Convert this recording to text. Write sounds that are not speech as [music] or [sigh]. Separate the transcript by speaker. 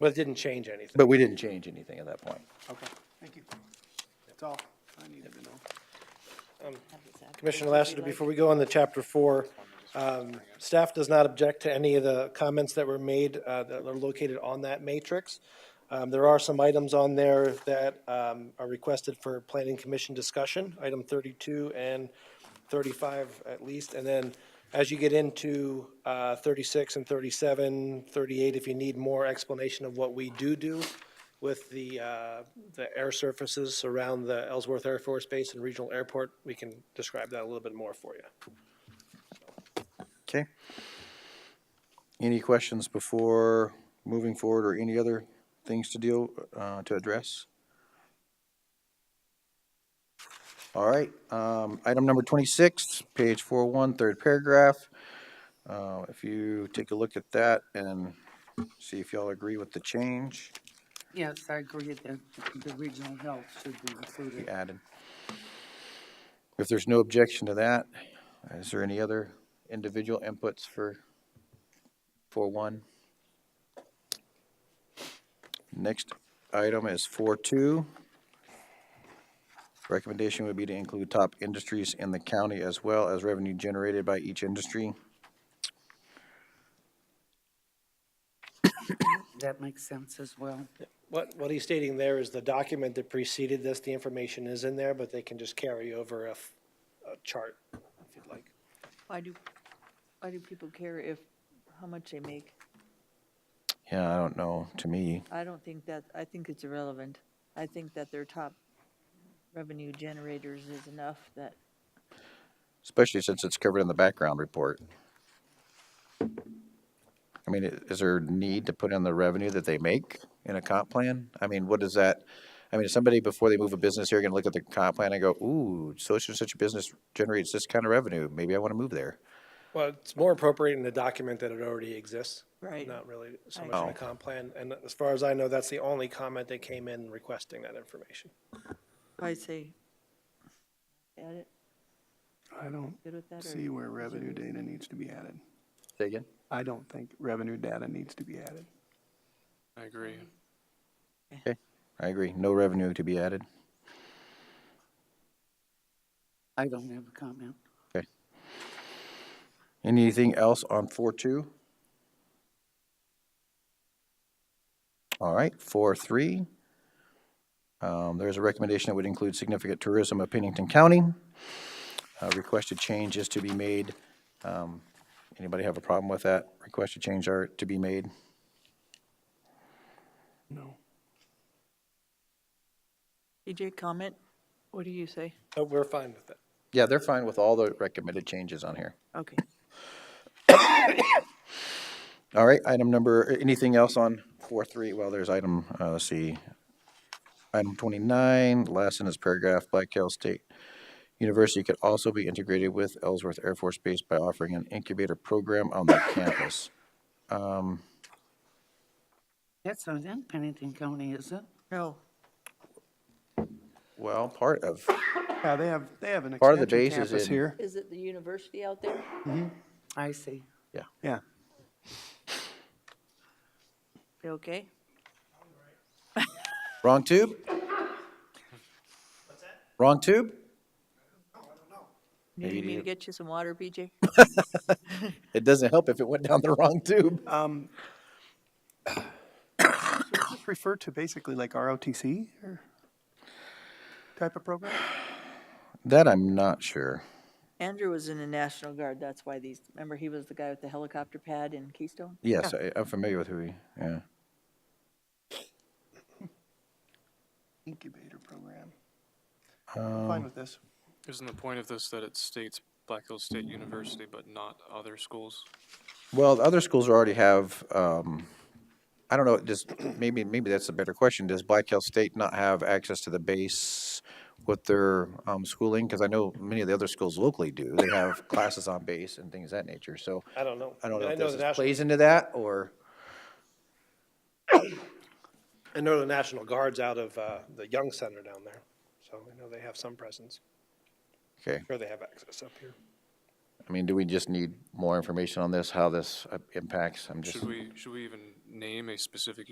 Speaker 1: Well, it didn't change anything.
Speaker 2: But we didn't change anything at that point.
Speaker 3: Okay, thank you. That's all I needed to know.
Speaker 1: Commissioner Lassiter, before we go on to chapter four, um, staff does not object to any of the comments that were made, uh, that are located on that matrix. Um, there are some items on there that, um, are requested for planning commission discussion, item thirty-two and thirty-five at least, and then as you get into, uh, thirty-six and 37, 38, if you need more explanation of what we do do with the, uh, the air surfaces around the Ellsworth Air Force Base and Regional Airport, we can describe that a little bit more for you.
Speaker 2: Okay. Any questions before moving forward or any other things to deal, uh, to address? All right, um, item number twenty-six, page four one, third paragraph. Uh, if you take a look at that and see if y'all agree with the change
Speaker 4: Yes, I agree that the regional health should be
Speaker 2: we
Speaker 4: included.
Speaker 2: added. If there's no objection to that, is there any other individual inputs for four one? Next item is four two. Recommendation would be to include top industries in the county as well as revenue generated by each industry.
Speaker 4: That makes sense as well.
Speaker 1: What, what he's stating there is the document that preceded this, the information is in there, but they can just carry over a, f- a chart if you'd like.
Speaker 5: Why do, why do people care if, how much they make?
Speaker 2: Yeah, I don't know, to me,
Speaker 5: I don't think that, I think it's irrelevant. I think that their top revenue generators is enough that,
Speaker 2: especially since it's covered in the background report. I mean, i- is there a need to put in the revenue that they make in a comp plan? I mean, what does that, I mean, is somebody before they move a business here gonna look at the comp plan and go, ooh, such and such a business generates this kind of revenue, maybe I wanna move there?
Speaker 1: Well, it's more appropriate in the document that it already exists.
Speaker 5: Right.
Speaker 1: Not really so
Speaker 5: I
Speaker 1: much in the
Speaker 2: agree.
Speaker 1: comp plan, and as far as I know, that's the only comment that came in requesting that information.
Speaker 5: I say, add it,
Speaker 3: I don't
Speaker 5: good with that? or-
Speaker 3: see where revenue data needs to be added.
Speaker 2: Say again?
Speaker 3: I don't think revenue data needs to be added.
Speaker 6: I agree.
Speaker 2: I agree, no revenue to be added.
Speaker 4: I don't have a comment.
Speaker 2: Anything else on four two? All right, four three. Um, there's a recommendation that would include significant tourism of Pennington County. Uh, requested change is to be made. Um, anybody have a problem with that? Requested change are to be made.
Speaker 3: No.
Speaker 5: TJ, E comment? What do you say?
Speaker 1: But we're fine with that.
Speaker 2: Yeah, they're fine with all the recommended changes on here.
Speaker 5: Okay.
Speaker 2: All right, item number, anything else on four, three? Well, there's item, uh, let's see. Item twenty-nine, last in this paragraph, Black Hills State University could also be integrated with Ellsworth Air Force Base by offering an incubator program on their [coughs] campus. Um,
Speaker 4: That's not in Pennington County, is it?
Speaker 5: No,
Speaker 2: well, part of,
Speaker 3: Yeah, they have, they have an
Speaker 2: Part of the
Speaker 3: extension
Speaker 2: base is
Speaker 3: campus
Speaker 2: in-
Speaker 3: here.
Speaker 5: is it the university out there?
Speaker 4: I see.
Speaker 3: Yeah,
Speaker 5: You okay?
Speaker 2: wrong tube? Wrong tube?
Speaker 5: You Need me to
Speaker 2: Idiot.
Speaker 5: get you some water, BJ?
Speaker 2: It doesn't help if it went down the wrong tube.
Speaker 3: Just refer to basically like ROTC or type of program?
Speaker 2: That I'm not sure.
Speaker 5: Andrew was in the National Guard, that's why these, remember he was the guy with the helicopter pad in Keystone?
Speaker 2: Yes, I, I'm familiar with who he, yeah.
Speaker 3: Incubator program. I'm
Speaker 2: Um,
Speaker 3: Fine with this.
Speaker 6: Isn't the point of this that it states Black Hills State University but not other schools?
Speaker 2: Well, the other schools already have, um, I don't know, does, maybe, maybe that's a better question. Does Black Hills State not have access to the base with their, um, schooling? Because I know many of the other schools locally do. They have
Speaker 1: [coughs]
Speaker 2: classes on base and things of that nature, so
Speaker 1: I don't know.
Speaker 2: I don't know
Speaker 1: I
Speaker 2: if
Speaker 1: know
Speaker 2: this
Speaker 1: the
Speaker 2: is-
Speaker 1: national-
Speaker 2: plays into that or,
Speaker 1: I know the National Guard's out of, uh, the Young Center down there, so I know they have some presence,
Speaker 2: okay.
Speaker 1: or they have access up here.
Speaker 2: I mean, do we just need more information on this, how this uh, impacts? I'm just.
Speaker 6: Should we, should we even name a specific